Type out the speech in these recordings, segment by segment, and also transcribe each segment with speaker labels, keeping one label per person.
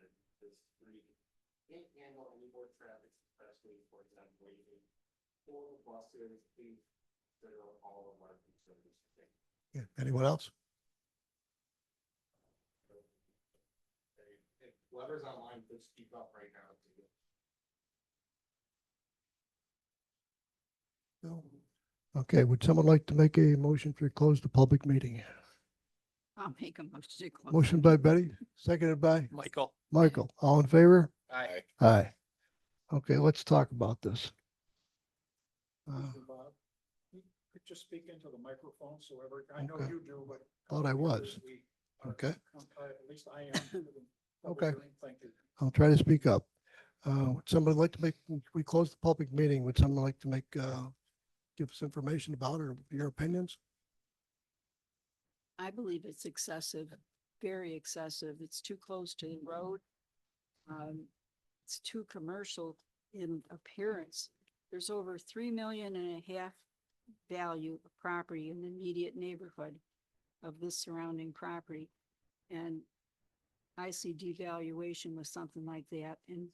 Speaker 1: this three. Can't handle any more traffic, especially for example, waiting for buses, please, that are all of our concerns. Thank you.
Speaker 2: Yeah, anyone else?
Speaker 1: Hey, If whoever's online, please speak up right now.
Speaker 2: No? Okay, would someone like to make a motion to close the public meeting?
Speaker 3: I'll make a motion to close.
Speaker 2: Motion by Betty, seconded by
Speaker 4: Michael.
Speaker 2: Michael. All in favor?
Speaker 4: Aye.
Speaker 2: Aye. Okay, let's talk about this. Uh,
Speaker 5: Mr. Bob, you could just speak into the microphone, so every, I know
Speaker 2: Okay.
Speaker 5: you do, but.
Speaker 2: Thought I was.
Speaker 5: we are
Speaker 2: Okay.
Speaker 5: com- uh, At least I am. to the public
Speaker 2: Okay.
Speaker 5: hearing. Thank you.
Speaker 2: I'll try to speak up. Uh, would somebody like to make, we close the public meeting. Would someone like to make, uh, give us information about or your opinions?
Speaker 3: I believe it's excessive, very excessive. It's too close to the road. Um, it's too commercial in appearance. There's over three million and a half value of property in the immediate neighborhood of this surrounding property. And I see devaluation with something like that and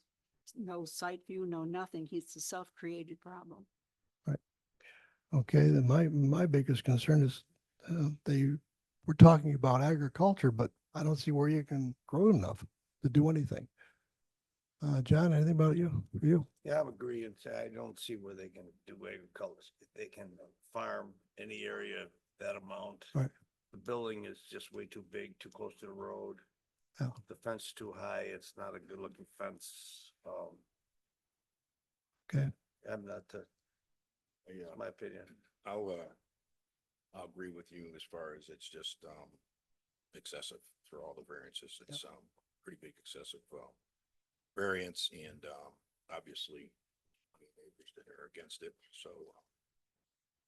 Speaker 3: no sight view, no nothing. It's a self-created problem.
Speaker 2: Okay, then my, my biggest concern is, uh, they were talking about agriculture, but I don't see where you can grow enough to do anything. Uh, John, anything about you, for you?
Speaker 6: Yeah, I'm agreeing. So I don't see where they can do agriculture. They can farm any area that amount.
Speaker 2: Right.
Speaker 6: The building is just way too big, too close to the road.
Speaker 2: Yeah.
Speaker 6: The fence is too high. It's not a good looking fence. Um.
Speaker 2: Okay.
Speaker 6: I'm not, the-
Speaker 7: Yeah,
Speaker 6: that's my opinion.
Speaker 7: I'll, uh, I'll agree with you as far as it's just, um, excessive for all the variances. It's, um, pretty big excessive, well, variance and, um, obviously the neighbors that are against it, so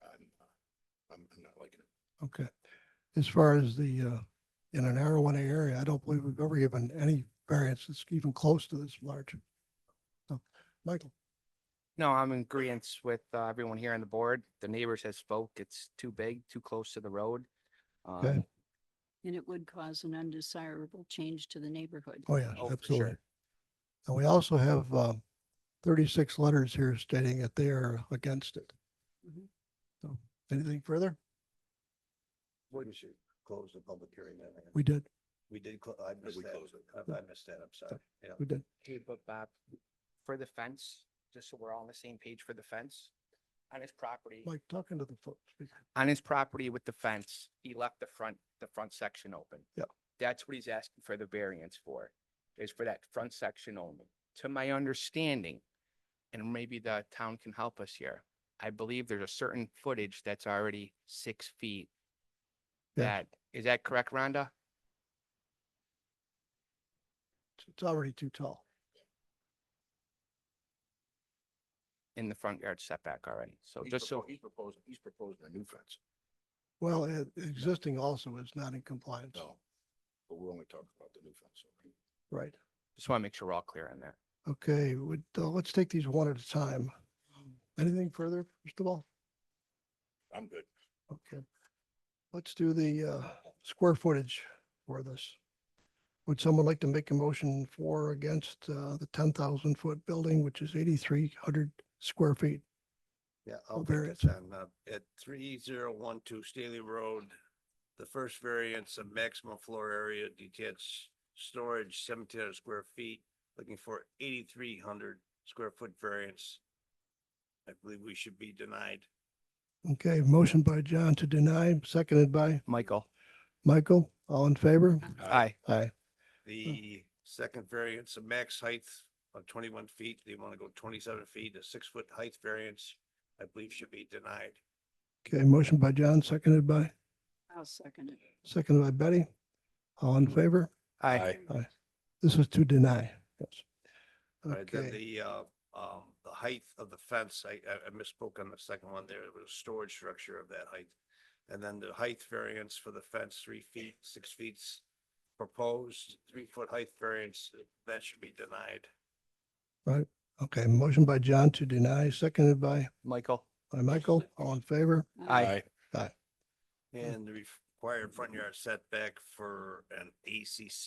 Speaker 7: uh, I'm, uh, I'm, I'm not liking it.
Speaker 2: Okay. As far as the, uh, in an one area, I don't believe we've ever given any variance that's even close to this large. So, Michael,
Speaker 4: No, I'm in agreement with uh, everyone here on the board. The neighbors have spoke. It's too big, too close to the road.
Speaker 2: Okay.
Speaker 4: Um,
Speaker 3: And it would cause an undesirable change to the neighborhood.
Speaker 2: oh yeah,
Speaker 4: Oh, for
Speaker 2: absolutely.
Speaker 4: sure.
Speaker 2: And we also have, um, thirty-six letters here stating that they are against it.
Speaker 4: Mm-hmm.
Speaker 3: Mhm.
Speaker 2: So, anything further?
Speaker 6: Wouldn't you close the public hearing then?
Speaker 2: We did.
Speaker 6: We did, clo- I
Speaker 7: we
Speaker 6: missed that.
Speaker 7: closed it.
Speaker 6: I I missed that. I'm sorry. Yeah.
Speaker 2: We did.
Speaker 4: Hey, but Bob, for the fence, just so we're all on the same page for the fence, on his property,
Speaker 2: Mike, talking to the folks. speaker.
Speaker 4: on his property with the fence, he left the front, the front section open.
Speaker 2: Yep.
Speaker 4: That's what he's asking for the variance for, is for that front section only. To my understanding, and maybe the town can help us here, I believe there's a certain footage that's already six feet.
Speaker 2: Yeah.
Speaker 4: That, is that correct, Rhonda?
Speaker 2: It's already too tall.
Speaker 4: In the front yard setback already, so
Speaker 7: He's
Speaker 4: just so,
Speaker 7: propo- He's proposing, he's proposing a new fence.
Speaker 2: Well, e- existing also is not in compliance.
Speaker 7: No, but we're only talking about the new fence. okay?
Speaker 2: Right.
Speaker 4: just want to make sure we're all clear on that.
Speaker 2: Okay, would, uh, let's take these one at a time. Anything further, first of all?
Speaker 7: I'm good.
Speaker 2: Okay. Let's do the, uh, square footage for this. Would someone like to make a motion for or against, uh, the ten thousand foot building, which is eighty-three hundred square feet?
Speaker 6: Yeah,
Speaker 2: Oh,
Speaker 6: I'll
Speaker 2: there
Speaker 6: make
Speaker 2: it
Speaker 6: it on, uh, at three zero one two Staley Road. The first variance of maximum floor area detached storage seventeen hundred square feet, looking for eighty-three hundred square foot variance. I believe we should be denied.
Speaker 2: Okay, motion by John to deny, seconded by
Speaker 4: Michael,
Speaker 2: Michael. All in favor?
Speaker 4: aye,
Speaker 2: Aye.
Speaker 6: The second variance of max height of twenty-one feet, they want to go twenty-seven feet, a six-foot height variance, I believe should be denied.
Speaker 2: Okay, motion by John, seconded by,
Speaker 3: I'll second it.
Speaker 2: seconded by Betty. All in favor?
Speaker 4: aye,
Speaker 2: This was to deny. Yes.
Speaker 6: Right, then
Speaker 2: Okay,
Speaker 6: the, uh, um, the height of the fence, I, I I misspoke on the second one there, it was a storage structure of that height. And then the height variance for the fence, three feet, six feet proposed, three foot height variance, that should be denied.
Speaker 2: okay, motion by John to deny, seconded by,
Speaker 4: Michael,
Speaker 2: by Michael. All in favor?
Speaker 4: aye.
Speaker 6: And the required front yard setback for an ACC